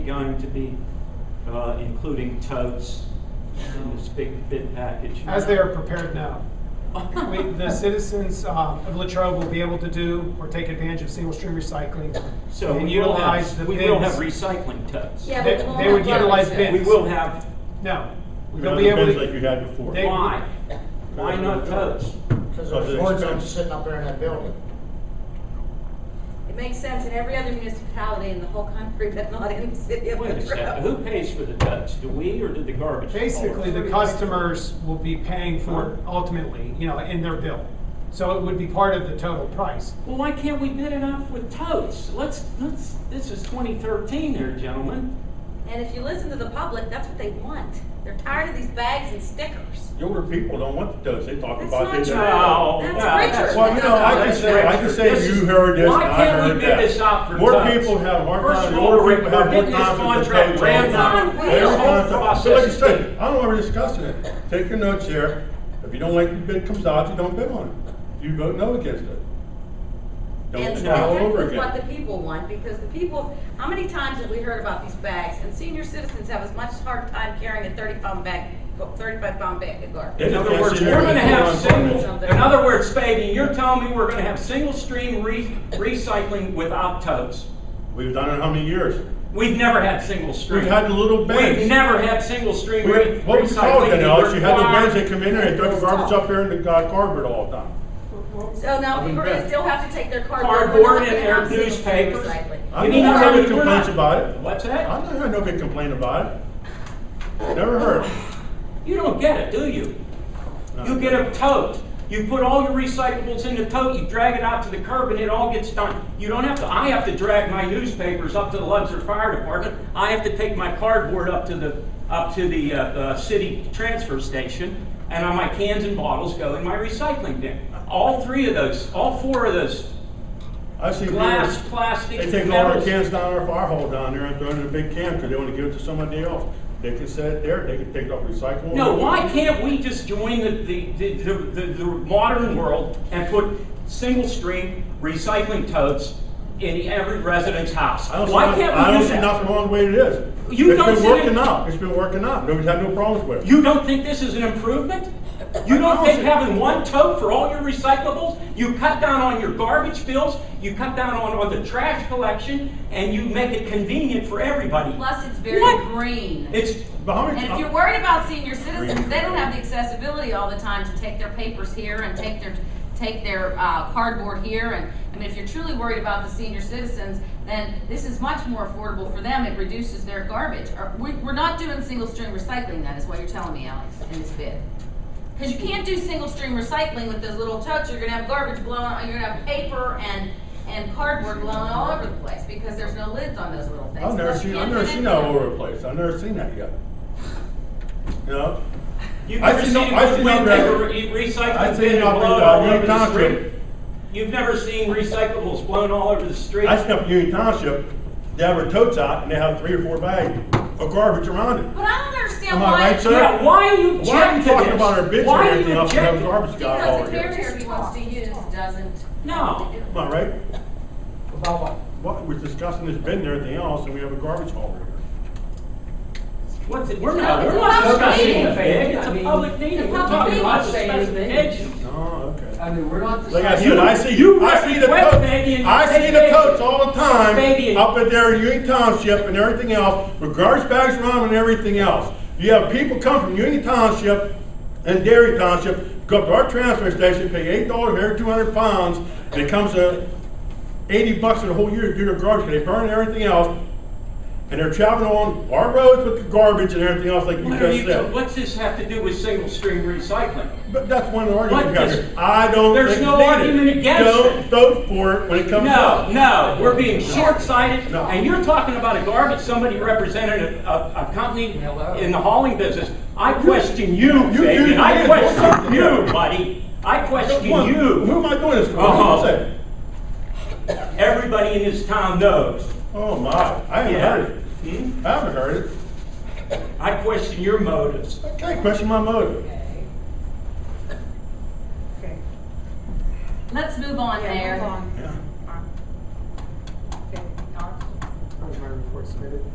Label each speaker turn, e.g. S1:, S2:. S1: going to be uh, including totes in this big bid package.
S2: As they are prepared now. We, the citizens uh, of Latrobe will be able to do or take advantage of single-stream recycling.
S1: So
S2: and
S1: we will
S2: utilize the
S1: have, we will have
S2: bins.
S1: recycling totes.
S3: Yeah,
S2: They-
S3: but we
S2: they
S3: won't
S2: would
S3: have
S2: utilize
S3: garbage
S2: bins.
S1: We will have,
S2: No.
S4: We're
S2: They'll
S4: gonna
S2: be able
S4: depends like you
S2: to,
S4: had before.
S2: They-
S1: why? Why not totes?
S5: Because
S4: Of the
S5: there's ordinance
S4: expense.
S5: sitting up there in that building.
S3: It makes sense in every other municipality in the whole country, but not in the city of
S1: Wait a second,
S3: Latrobe.
S1: who pays for the totes? Do we or do the garbage?
S2: basically, the customers will be paying for it ultimately, you know, in their bill. So it would be part of the total price.
S1: Well, why can't we bid it out with totes? Let's, let's, this is 2013 here, gentlemen.
S3: And if you listen to the public, that's what they want. They're tired of these bags and stickers.
S4: Younger people don't want the totes, they talk
S3: That's
S4: about
S3: not
S4: this.
S3: true.
S1: No, no,
S3: That's
S1: that's-
S3: Richard.
S4: Well, you know, I can
S3: That's
S4: say, I can
S3: Richard.
S4: say
S1: This is-
S4: you heard this,
S1: why
S4: and I
S1: can't we
S4: heard
S1: bid
S4: that.
S1: this out for
S4: More
S1: totes?
S4: people have a hard
S1: First
S4: time,
S1: of all,
S4: more
S1: we're-
S4: people have
S1: we're
S4: more
S1: getting this
S4: time with the
S1: contract
S4: totes.
S1: ran
S3: on.
S4: They
S3: The
S4: don't
S3: whole
S4: want to- So like you
S1: process is
S4: said, I don't know, we're discussing it, take your notes here, if you don't like the bid comes out, you don't bid on it, you vote no against it. Don't
S3: And
S4: start all
S3: that's
S4: over
S3: What the
S4: again.
S3: people want, because the people, how many times have we heard about these bags? And senior citizens have as much hard time carrying a thirty pound bag, thirty-five pound bag of garbage.
S1: In other words, we're gonna have single, in other words, Spady, you're telling me we're gonna have single stream re- recycling without totes?
S4: We've done it how many years?
S1: We've never had single stream.
S4: We've had the little bins.
S1: We've never had single stream
S4: We-
S1: re-
S4: What was called
S1: recycling.
S4: that, Alex? You had the
S1: Required-
S4: guys that come in there and throw the garbage up there in the uh, carpet all the time.
S3: So now people are gonna still have to take their cardboard. We're
S1: Cardboard
S3: not
S1: and
S3: gonna have
S1: their
S3: single-stream
S1: newspapers.
S3: recycling.
S4: I
S1: You mean
S4: never
S1: to tell
S4: heard
S1: me
S4: any
S1: we're
S4: complaints
S1: not-
S4: about it.
S1: What's
S4: I
S1: that?
S4: never heard nobody complain about it. Never heard.
S1: You don't get it, do you?
S4: No.
S1: You get a tote. You put all your recyclables in the tote, you drag it out to the curb, and it all gets done. You don't have to, I have to drag my newspapers up to the Luxor Fire Department. I have to take my cardboard up to the, up to the, uh, uh, city transfer station, and all my cans and bottles go in my recycling bin. All three of those, all four of those,
S4: I've seen
S1: glass,
S4: people,
S1: plastic,
S4: they take all their
S1: metals.
S4: cans down our fire hall down there and throw it in a big can because they want to give it to somebody else. They can set it there, they can take it off recycling.
S1: No, why can't we just join the, the, the, the, the modern world and put single stream recycling totes in every resident's house?
S4: I don't see
S1: Why
S4: nothing-
S1: can't
S4: I
S1: we
S4: don't
S1: do
S4: see
S1: that?
S4: nothing wrong with the way it is.
S1: You don't
S4: It's
S1: see
S4: been
S1: it-
S4: working out, it's been working out, nobody's had no problems with it.
S1: You don't think this is an improvement? You don't think having one tote for all your recyclables? You cut down on your garbage bills, you cut down on, on the trash collection, and you make it convenient for everybody.
S3: Plus, it's very
S1: What?
S3: green.
S1: It's,
S4: But how many
S3: And if
S4: ti-
S3: you're worried about senior citizens, they don't have the accessibility all the time to take their papers here and take their, take their uh, cardboard here. And, I mean, if you're truly worried about the senior citizens, then this is much more affordable for them. It reduces their garbage. Or- we- We're not doing single-stream recycling, that is what you're telling me, Alex, in this bid. Because you can't do single-stream recycling with those little totes. You're gonna have garbage blowing, you're gonna have paper and, and cardboard blowing all over the place because there's no lids on those little things.
S4: I've never
S3: Plus, you
S4: seen, I've
S3: can't
S4: never
S3: fit
S4: seen
S3: anything.
S4: that all over the place, I've never seen that yet. You know?
S1: you've
S4: I've
S1: never
S4: seen
S1: seen
S4: no- I've seen no
S1: wind
S4: better-
S1: paper re- recycling
S4: I've seen
S1: bin
S4: nothing
S1: blown
S4: but
S1: all
S4: new
S1: over the
S4: concrete.
S1: street. You've never seen recyclables blown all over the street.
S4: I snuck Union Township, they have their totes out and they have three or four bags of garbage around it.
S3: But I don't understand
S4: Am I
S3: why.
S4: right, sir?
S1: Yeah, why are you
S4: Why are
S1: objecting
S4: you
S1: to
S4: talking
S1: this?
S4: about our bitch
S1: Why
S4: and
S1: are
S4: everything
S1: you
S4: else and have
S1: objecting?
S4: garbage guy all
S3: Because the
S4: here?
S3: barrier he wants to use doesn't.
S1: No.
S4: Am I right?
S5: About what?
S4: What, we're discussing this bin and everything else and we have a garbage hauler here.
S1: What's it, we're not,
S3: It's
S1: we're
S3: a
S1: not
S3: public
S1: discussing
S3: meeting.
S1: the bid, it's
S6: I
S1: a
S6: mean,
S1: public meeting, we're
S3: public
S1: talking
S3: meeting.
S1: about
S3: Not
S6: saying anything.
S1: specifications.
S4: Oh, okay.
S6: I mean, we're not
S4: Like I
S6: deciding.
S4: said, I see,
S1: you
S4: I see the
S1: request
S4: totes,
S1: baby and
S4: I see
S1: take
S4: the
S1: baby.
S4: totes all the time,
S1: Baby and-
S4: up at there in Union Township and everything else, with garbage bags around and everything else. You have people come from Union Township and Dairy Township, go up to our transfer station, pay eight dollars every two hundred pounds, and it comes to eighty bucks for the whole year to do their garbage, they burn everything else, and they're traveling on our roads with the garbage and everything else like you
S1: What are
S4: just
S1: you,
S4: said.
S1: what's this have to do with single stream recycling?
S4: But that's one of the arguments we
S1: What
S4: got
S1: does-
S4: here. I don't
S1: There's
S4: think it's
S1: no
S4: needed.
S1: argument against it.
S4: Don't vote for it when it comes up.
S1: No, no, we're being short-sighted,
S4: No.
S1: and you're talking about a garbage, somebody represented a, a, a company
S6: Hello.
S1: in the hauling business. I question you,
S4: you
S1: Fabian,
S4: do
S1: I
S4: this.
S1: question you, buddy, I question
S4: Come on, Who
S1: you.
S4: am I doing this for? What
S1: Uh-huh.
S4: am I saying?
S1: Everybody in this town knows.
S4: Oh my, I haven't
S1: Yeah.
S4: heard it.
S1: Hmm?
S4: I haven't heard it.
S1: I question your motives.
S4: Okay, question my motive.
S3: Let's move on there.
S4: Yeah.
S2: Our report submitted.